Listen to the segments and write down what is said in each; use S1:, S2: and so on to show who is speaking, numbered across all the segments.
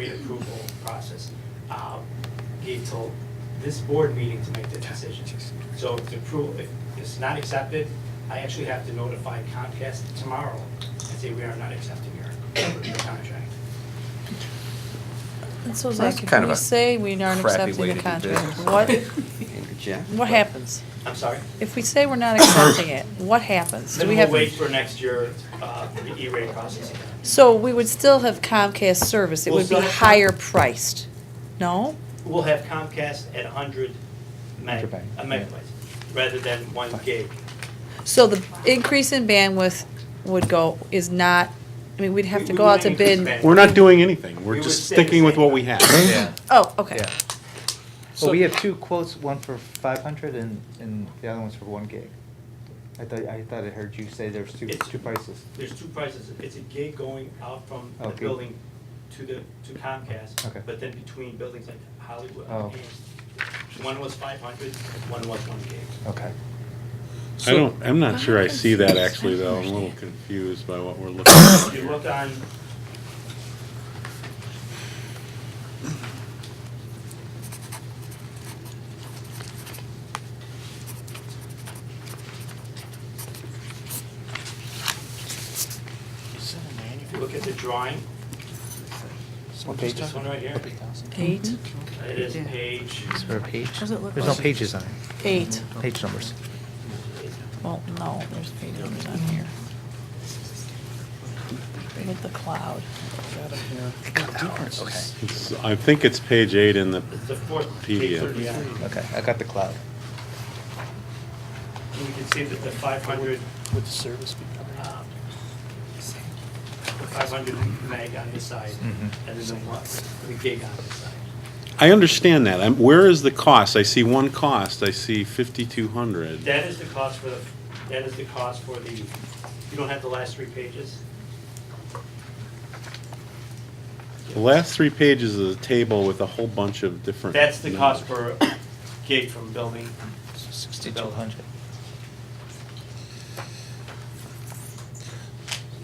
S1: approval process. Uh, Gave till this board meeting to make the decision. So if the approval, if it's not accepted, I actually have to notify Comcast tomorrow and say we are not accepting your your contract.
S2: And so
S3: That's
S2: Zach,
S3: kind
S2: if
S3: of
S2: we
S3: a
S2: say we aren't
S3: crappy
S2: accepting
S3: way
S2: the
S3: to do
S2: contract,
S3: business.
S2: what,
S3: Interject.
S2: what happens?
S1: I'm sorry?
S2: If we say we're not accepting it, what happens? Do
S1: Then
S2: we
S1: we'll
S2: have,
S1: wait for next year, uh, for the E-rate process again.
S2: so we would still have Comcast service, it
S1: We'll
S2: would be
S1: still have Com-
S2: higher priced, no?
S1: We'll have Comcast at 100 meg,
S4: 100
S1: a
S4: meg, yeah.
S1: megabytes, rather than one gig.
S2: So the increase in bandwidth would go, is not, I mean, we'd have
S1: We-
S2: to
S1: we
S2: go
S1: would
S2: out to
S1: increase
S2: bid.
S1: bandwidth.
S5: We're not doing anything,
S1: We
S5: we're
S1: would
S5: just
S1: stay the
S5: sticking with
S1: same.
S5: what we have.
S3: Yeah.
S2: Oh, okay.
S4: Yeah. Well, we have two quotes, one for five hundred and, and the other one's for one gig. I thought, I thought I heard you say there's two,
S1: It's-
S4: two prices.
S1: There's two prices. It's a gig going out from the
S4: Okay.
S1: building to the, to Comcast,
S4: Okay.
S1: but then between buildings like Hollywood.
S4: Oh.
S1: and One was 500, one was one gig.
S4: Okay.
S6: I don't, I'm not sure I see that actually though, I'm a little confused by what we're looking at
S1: If you
S6: here.
S1: look on, if you look at the drawing,
S4: What
S1: page this one right here,
S2: Eight,
S1: it is page,
S4: Is there a page?
S2: Does it look
S4: There's no
S2: like-
S4: pages on it,
S2: eight,
S4: page numbers.
S2: well, no, there's page numbers on here. With the cloud.
S4: Okay,
S6: It's- I think it's page eight in the,
S1: it's the fourth, page
S6: PDF.
S1: 33.
S4: okay, I got the cloud.
S1: And you can see that the 500
S7: Would the service be covered?
S1: um, the 500 meg on this side,
S4: Mhm.
S1: and then the one, the gig on this side.
S6: I understand that, I'm, where is the cost? I see one cost, I see fifty-two hundred.
S1: That is the cost for the, that is the cost for the, you don't have the last three pages?
S6: The last three pages is a table with a whole bunch of different.
S1: That's the cost
S6: numbers.
S1: per gig from building.
S4: Sixty-two hundred.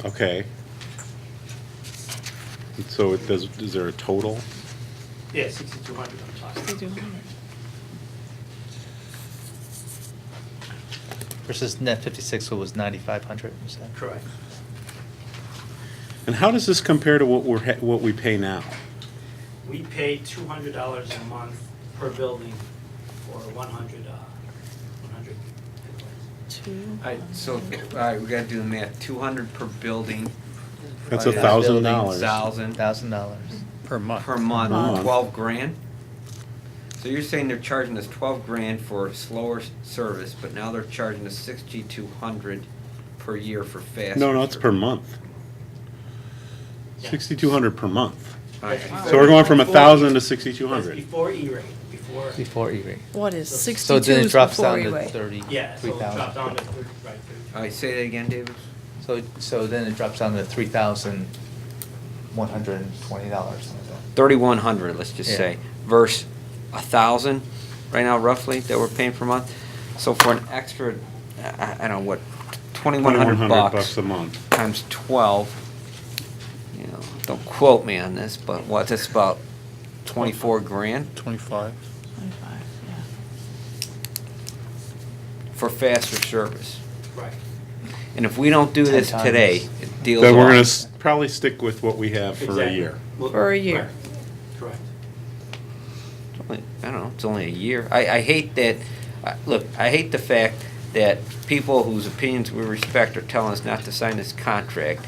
S6: Okay. And So it does, is there a total?
S1: Yeah, 6,200 I'm talking.
S4: Versus net fifty-six, it was ninety-five hundred, you said?
S1: Correct.
S6: And how does this compare to what we're, ha- what we pay now?
S1: We pay $200 a month per building for 100, uh, 100 megawatts.
S2: Two.
S3: I, so, all right, we gotta do the math, two hundred per building,
S6: That's a
S4: Divided by
S6: thousand
S4: building,
S6: dollars.
S3: thousand
S4: Thousand dollars.
S7: Per month.
S3: per
S6: Month.
S3: month, twelve grand? So you're saying they're charging us twelve grand for slower s- service, but now they're charging us sixty-two hundred per year for faster.
S6: No, no, it's per
S3: service.
S6: month.
S1: Yeah.
S6: Sixty-two hundred per month.
S3: All right.
S6: So we're going from a
S1: Before- E
S6: thousand to sixty-two
S1: That's
S6: hundred.
S1: before E-rate, before,
S4: Before E-rate.
S2: What is
S4: So
S2: sixty-two
S4: then it
S2: is
S4: drops
S2: before
S4: down to
S2: E-rate?
S1: yeah, so
S4: thirty-three
S1: it dropped down
S4: thousand.
S1: to 30, right, 30.
S3: All right, say that again, David?
S4: So, so then it drops down to three thousand one hundred and twenty dollars.
S3: Thirty-one hundred, let's just
S4: Yeah.
S3: say, versus a thousand, right now roughly, that we're paying per month. So for an extra, I, I don't know, what, twenty-one hundred bucks.
S6: a month.
S3: times 12, you know, don't quote me on this, but what, that's about 24 grand
S7: Twenty-five.
S2: Twenty-five, yeah.
S3: for faster service.
S1: Right.
S3: And if we don't do
S4: Ten
S3: this today,
S4: times.
S3: it deals
S6: Then we're gonna
S3: off.
S6: s- probably stick with what we have for a
S1: Exactly.
S6: year.
S1: Well,
S2: For a year.
S1: right, Correct.
S3: It's only- I don't know, it's only a year. I, I hate that, I- look, I hate the fact that people whose opinions we respect are telling us not to sign this contract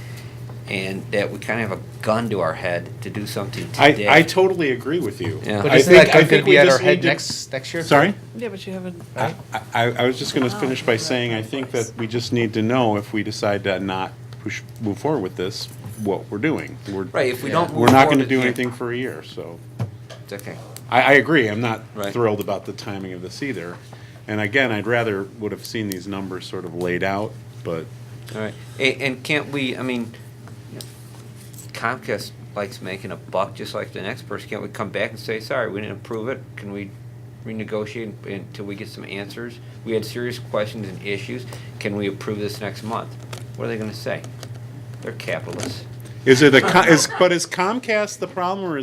S3: and that we kind of have a gun to our head to do something
S6: I,
S3: today.
S6: I totally agree with you.
S3: Yeah.
S4: But
S6: I
S4: isn't
S6: think-
S4: that
S6: I
S4: gonna
S6: think we
S4: be at our
S6: just need
S4: head
S6: to-
S4: next, next year?
S6: Sorry?
S2: Yeah, but you haven't,
S4: Right?
S6: I, I was just gonna finish by saying, I think that we just need to know if we decide to not push, move forward with this, what we're doing. We're-
S3: Right, if we don't.
S6: We're
S3: move
S6: not gonna
S3: forward-
S6: do
S3: yeah,
S6: anything for a year, so.
S3: It's okay.
S6: I, I agree, I'm not
S3: Right.
S6: thrilled about the timing of this either. And again, I'd rather would have seen these numbers sort of laid out, but
S3: All right, and, and can't we, I mean, Comcast likes making a buck just like the next person, can't we come back and say, sorry, we didn't approve it, can we renegotiate until we get some answers? We had serious questions and issues, can we approve this next month? What are they gonna say? They're capitalists.
S6: is it a, co- is, but is Comcast the problem or is